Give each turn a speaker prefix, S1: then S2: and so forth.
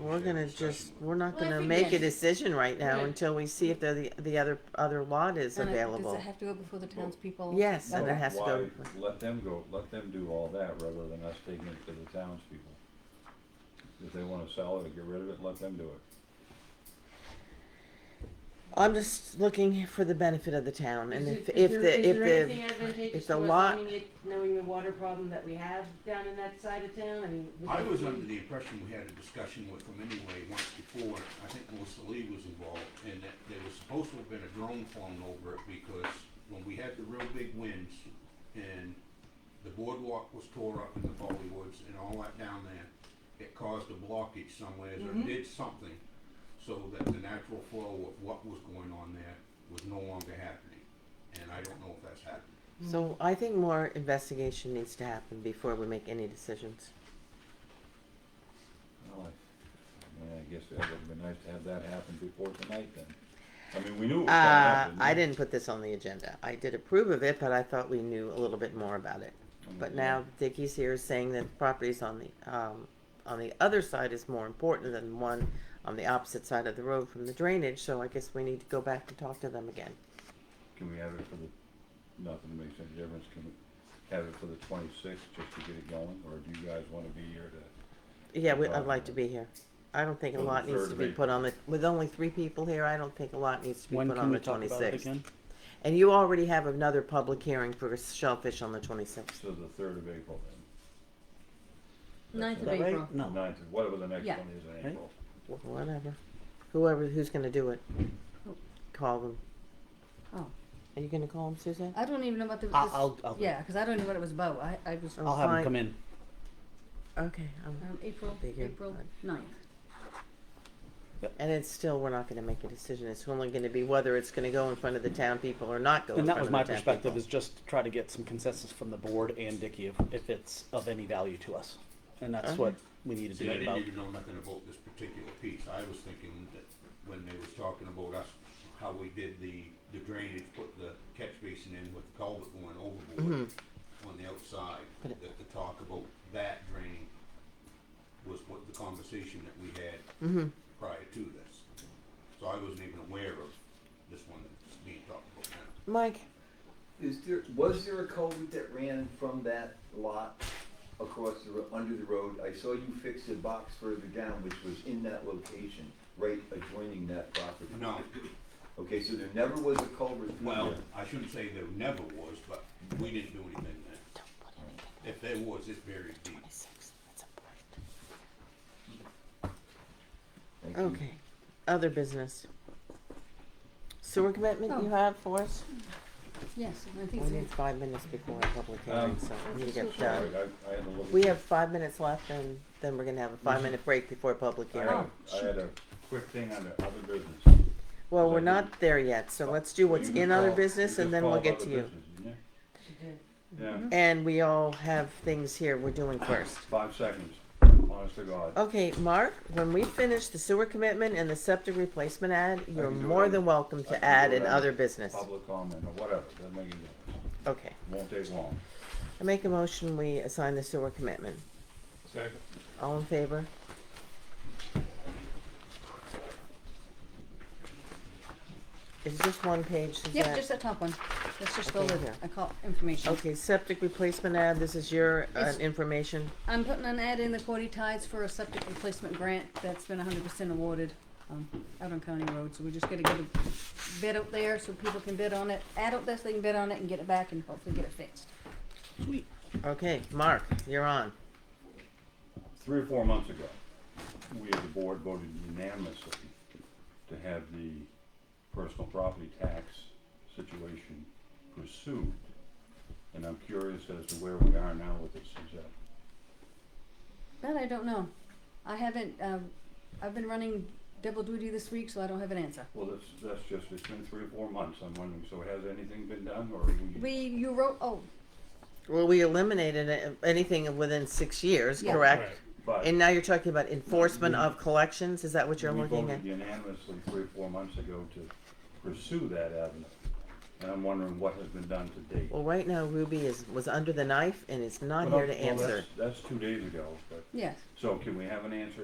S1: we're gonna just, we're not
S2: Well, if
S1: gonna
S2: we
S1: make a
S2: can-
S1: decision right now
S2: Right.
S1: until we see if the, the other, other lot is
S2: And it- Does
S1: available.
S2: it have to go before the townspeople?
S1: Yes,
S2: No.
S1: and it has to go.
S3: Why, let them go, let them do all that rather than us taking it to the townspeople. If they wanna sell it or get rid of it, let them do it.
S1: I'm just looking for the benefit of the town and
S4: Is
S1: if,
S4: it-
S1: if
S4: is there-
S1: the, if
S4: Is there anything
S1: the,
S4: advantageous
S1: if the
S4: to us
S1: lot-
S4: owning it, knowing the water problem that we have down in that side of town, I mean? we
S5: I
S4: don't
S5: was
S4: need-
S5: under the impression we had a discussion with them anyway once before, I think Melissa Lee was involved, and that there was supposed to have been a drone flown over it because when we had the real big winds and the boardwalk was tore up in the Foley Woods and all that down there, it caused a blockage somewhere, or
S4: Mhm.
S5: did something so that the natural flow of what was going on there was no longer happening, and I don't know if that's happened.
S1: so I think more investigation needs to happen before we make any decisions.
S3: Well, I, I mean, I guess that would've been nice to have that happen before tonight then. I mean, we knew it was gonna
S1: Uh,
S3: happen.
S1: I didn't put this on the agenda. I did approve of it, but I thought we knew a little bit more about it. But now Dickie's here saying that the properties on the, um, on the other side is more important than one on the opposite side of the road from the drainage, so I guess we need to go back and talk to them again.
S3: Can we have it for the, nothing that makes any difference, can we have it for the twenty-sixth just to get it going, or do you guys wanna be here to?
S1: Yeah, we, I'd
S3: Right.
S1: like to be here. I don't think a
S3: On the
S1: lot needs
S3: third
S1: to
S3: of
S1: be
S3: April.
S1: put on the, with only three people here, I don't think a lot needs to be
S6: When
S1: put on
S6: can we
S1: the
S6: talk about it
S1: twenty-sixth.
S6: again?
S1: And you already have another public hearing for shellfish on the twenty-sixth.
S3: So the third of April then?
S2: Ninth
S6: Is
S2: of
S6: that right?
S2: April.
S6: No.
S3: Ninth, of- whatever the next
S2: Yeah.
S3: one is in
S6: Right.
S3: April.
S1: Whatever. Whoever, who's gonna do it? Call them.
S2: Oh,
S1: Are you gonna call them, Suzanne?
S2: I don't even know what the.
S6: I'll-
S2: this-
S6: I'll- I'll-
S2: Yeah, because I don't know what it was about. I, I was,
S1: Oh.
S6: I'll have
S1: Fine.
S6: him come in.
S1: Okay. um,
S2: um, April,
S1: Big here.
S2: April ninth.
S1: And it's still, we're not gonna make a decision. It's only gonna be whether it's gonna go in front of the town people or not go in
S6: And that
S1: front of
S6: was
S1: the
S6: my
S1: town
S6: perspective,
S1: people.
S6: is just to try to get some consensus from the board and Dicky if, if it's of any value to us. And that's
S1: Okay.
S6: what we need to
S5: See,
S6: do
S5: I
S6: about.
S5: didn't even know nothing about this particular piece, I was thinking that when they was talking about us, how we did the, the drainage, put the catch basin in with the culvert going overboard on the outside,
S1: Mm-hmm. But
S5: that
S1: it-
S5: the talk about that draining was what the conversation that we had
S1: Mhm.
S5: prior to this. So I wasn't even aware of this one that's being talked about now.
S1: Mike,
S7: Is there, was there a culvert that ran from that lot across the, ro- under the road? I saw you fix the box further down, which was in that location, right adjoining that property.
S5: No,
S7: Okay, so there never was a culvert through
S5: well,
S7: there.
S5: I shouldn't say there never was, but we didn't do anything there. If there was, it's buried deep.
S7: Thank
S6: Mm.
S7: you.
S1: okay. Other business. Sewer commitment you have for us?
S2: Yes, and I think
S1: We need
S2: it's.
S1: five minutes before our public hearing,
S3: Um,
S1: so we need to get
S3: Sorry,
S1: done.
S3: I, I had to look. at
S1: We
S3: the-
S1: have five minutes left and then we're gonna have a
S3: Mm-hmm.
S1: five-minute break before public
S3: I had,
S1: hearing.
S3: a- I had a quick thing on the other business.
S1: Well, we're not there yet, so let's do what's
S3: You can
S1: in other
S3: call-
S1: business
S3: you
S1: and
S3: can
S1: then we'll
S3: call
S1: get
S3: other
S1: to you. Mm-hmm.
S3: business, didn't you?
S4: She did.
S3: Yeah,
S1: And we all have things here we're doing first.
S3: five seconds, honest to God.
S1: Okay, Mark, when we finish the sewer commitment and the septic replacement ad, you're
S3: can do
S1: more
S3: it.
S1: than welcome
S3: I
S1: to
S3: can
S1: add
S3: do
S1: in
S3: it.
S1: other business.
S3: Public comment or whatever, doesn't make any difference.
S1: Okay,
S3: Won't take long.
S1: I make a motion, we assign the sewer commitment.
S3: Second.
S1: All in favor? Is this one page, Suzette?
S2: Yeah, just that top one. That's just the
S1: Okay,
S2: little,
S1: here.
S2: I call information.
S1: Okay, septic replacement ad, this is your, uh,
S2: It's-
S1: information,
S2: I'm putting an ad in the Quoddy Tides for a septic replacement grant that's been hundred percent awarded, um, out on County Road, so we're just gonna get a bid out there so people can bid on it. Add out this, they can bid on it and get it back and hopefully get it fixed.
S1: okay, Mark, you're on.
S3: Three or four months ago, we as a board voted unanimously to have the personal property tax situation pursued. And I'm curious as to where we are now with this, is that?
S2: That I don't know. I haven't, um, I've been running double duty this week, so I don't have an answer.
S3: Well, that's, that's just, it's been three or four months, I'm wondering, so has anything been done, or are we?
S2: We, you wrote, oh,
S1: Well, we eliminated a- anything within six years,
S2: Yeah.
S1: correct?
S3: But
S1: And now you're talking about enforcement of collections, is that what you're
S3: we
S1: looking at?
S3: voted unanimously three or four months ago to pursue that avenue, and I'm wondering what has been done to date.
S1: Well, right now Ruby is, was under the knife and is not
S3: Well,
S1: here to
S3: well, that's-
S1: answer.
S3: That's two days ago, but,
S2: yes.
S3: so can we have an answer